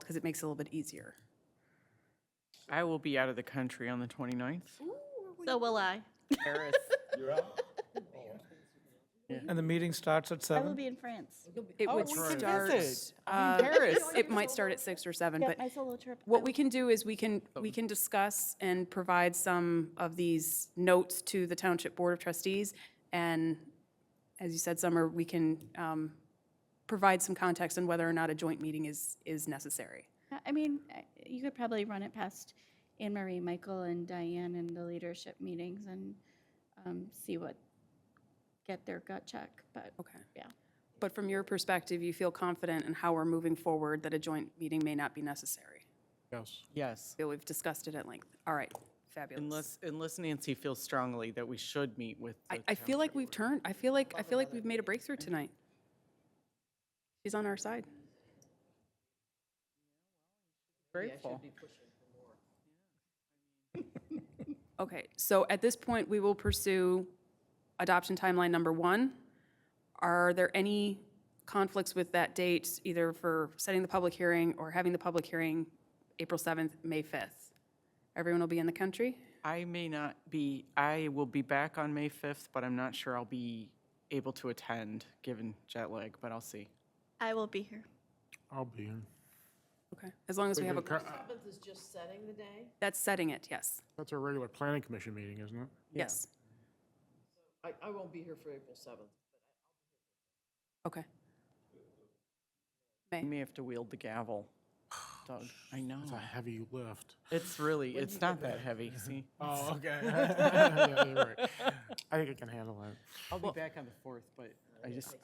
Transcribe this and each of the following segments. because it makes it a little bit easier. I will be out of the country on the 29th. So will I. Paris. And the meeting starts at I will seven? be in France. It would Oh, we can start, visit. uh, Paris. it might start at six or seven, Yeah, but my solo trip. what we can do is we can, we can discuss and provide some of these notes to the Township Board of Trustees. And as you said, Summer, we can um, provide some context on whether or not a joint meeting is, is necessary. I- I mean, I- you could probably run it past Anne Marie, Michael, and Diane in the leadership meetings and um, see what, get their gut check, but Okay. yeah. But from your perspective, you feel confident in how we're moving forward that a joint meeting may not be necessary? Yes. Yes. Feel we've discussed it at length. All right, fabulous. Unless, unless Nancy feels strongly that we should meet with. the I, I feel like we've turned, I feel like, I feel like we've made a breakthrough tonight. She's on our side. Grateful. Okay, so at this point, we will pursue adoption timeline number one. Are there any conflicts with that date, either for setting the public hearing or having the public hearing April 7th, May 5th? Everyone will be in the country? I may not be, I will be back on May 5th, but I'm not sure I'll be able to attend, given jet lag, but I'll see. I will be here. I'll be in. Okay, as long as we have a, uh, Seventh is just setting the day. that's setting it, yes, That's a regular planning commission meeting, isn't it? yes. I, I won't be here for April seventh. Okay, You may have to wield the gavel. Doug, I know. It's a heavy lift. It's really, it's not that heavy, see? Oh, okay. Yeah, you're right. I think I can handle that. I'll be back on the 4th, but I just,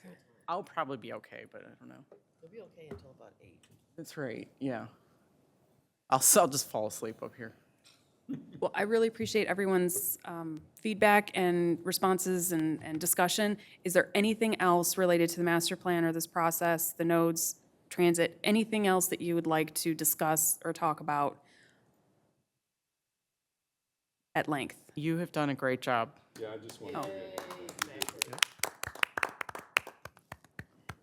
I'll probably be okay, but I don't know. It'll be okay until about eight. That's right, yeah. I'll, s- I'll just fall asleep up here. well, I really appreciate everyone's um, feedback and responses and, and discussion. Is there anything else related to the master plan or this process, the nodes, transit, anything else that you would like to discuss or talk about at length? You have done a great job. Oh.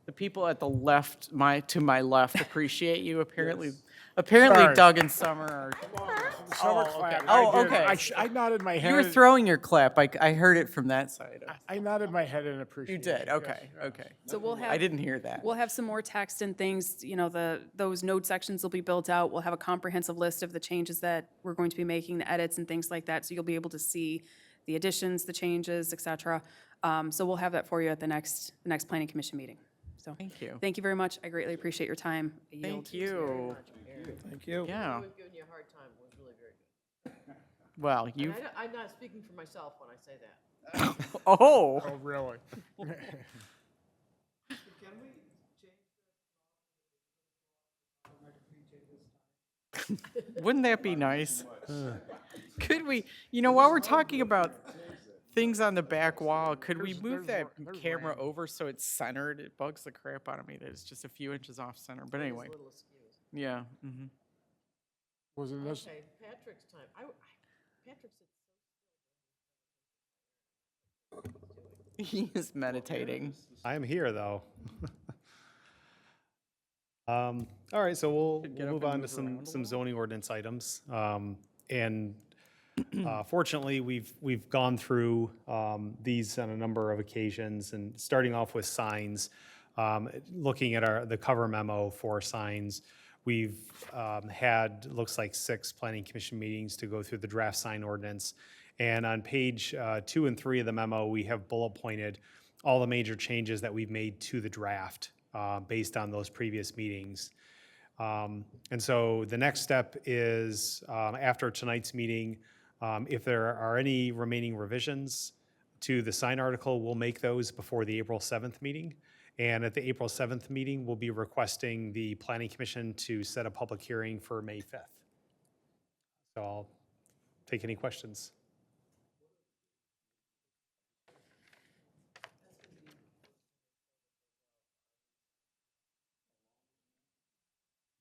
The people at the left, my, to my left appreciate you apparently. Apparently Sorry. Doug and Summer are, Summer clap. Oh, I did. okay. I sh- I nodded my head. you were in- throwing your clap, I, c- I heard it from that side. of- I nodded my head in You appreciation. did, Yes, okay, yes. okay. So we'll have. I didn't hear that. We'll have some more text and things, you know, the, those node sections will be built out. We'll have a comprehensive list of the changes that we're going to be making, the edits and things like that. So you'll be able to see the additions, the changes, et cetera. Um, So we'll have that for you at the next, the next planning commission meeting. So, Thank you. thank you very much. I greatly appreciate your time. I yield. Thank you. Thank you. Yeah, We've given you a hard time, it was really very good. well, you, And I don't- I'm not speaking for myself when I say that. oh. Oh, really? Wouldn't that be nice? Could we, you know, while we're talking about things on the back wall, could we There's- move that there's ra- there's camera random. over so it's centered? It bugs the crap out of me that it's just a few inches off center, but anyway. Yeah, mhm. Wasn't this, Okay, Patrick's time, I, I, Patrick said, he is meditating. I am here though. um, all right, so we'll, we'll move on to some some zoning ordinance items. Um, and uh, fortunately, we've we've gone through um, these on a number of occasions, and starting off with signs. Um, looking at our the cover memo for signs, we've um, had looks like six planning commission meetings to go through the draft sign ordinance. And on page uh, two and three of the memo, we have bullet pointed all the major changes that we've made to the draft uh, based on those previous meetings. Um, And so the next step is, um, after tonight's meeting, um, if there are any remaining revisions to the sign article, we'll make those before the April 7th meeting. And at the April 7th meeting, we'll be requesting the Planning Commission to set a public hearing for May 5th. So I'll take any questions.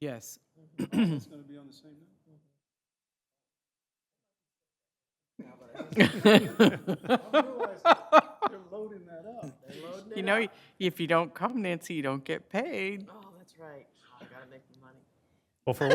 Yes. You know, if you don't come, Nancy, you don't get paid. oh, that's right, I gotta Oh, make the money. Well, for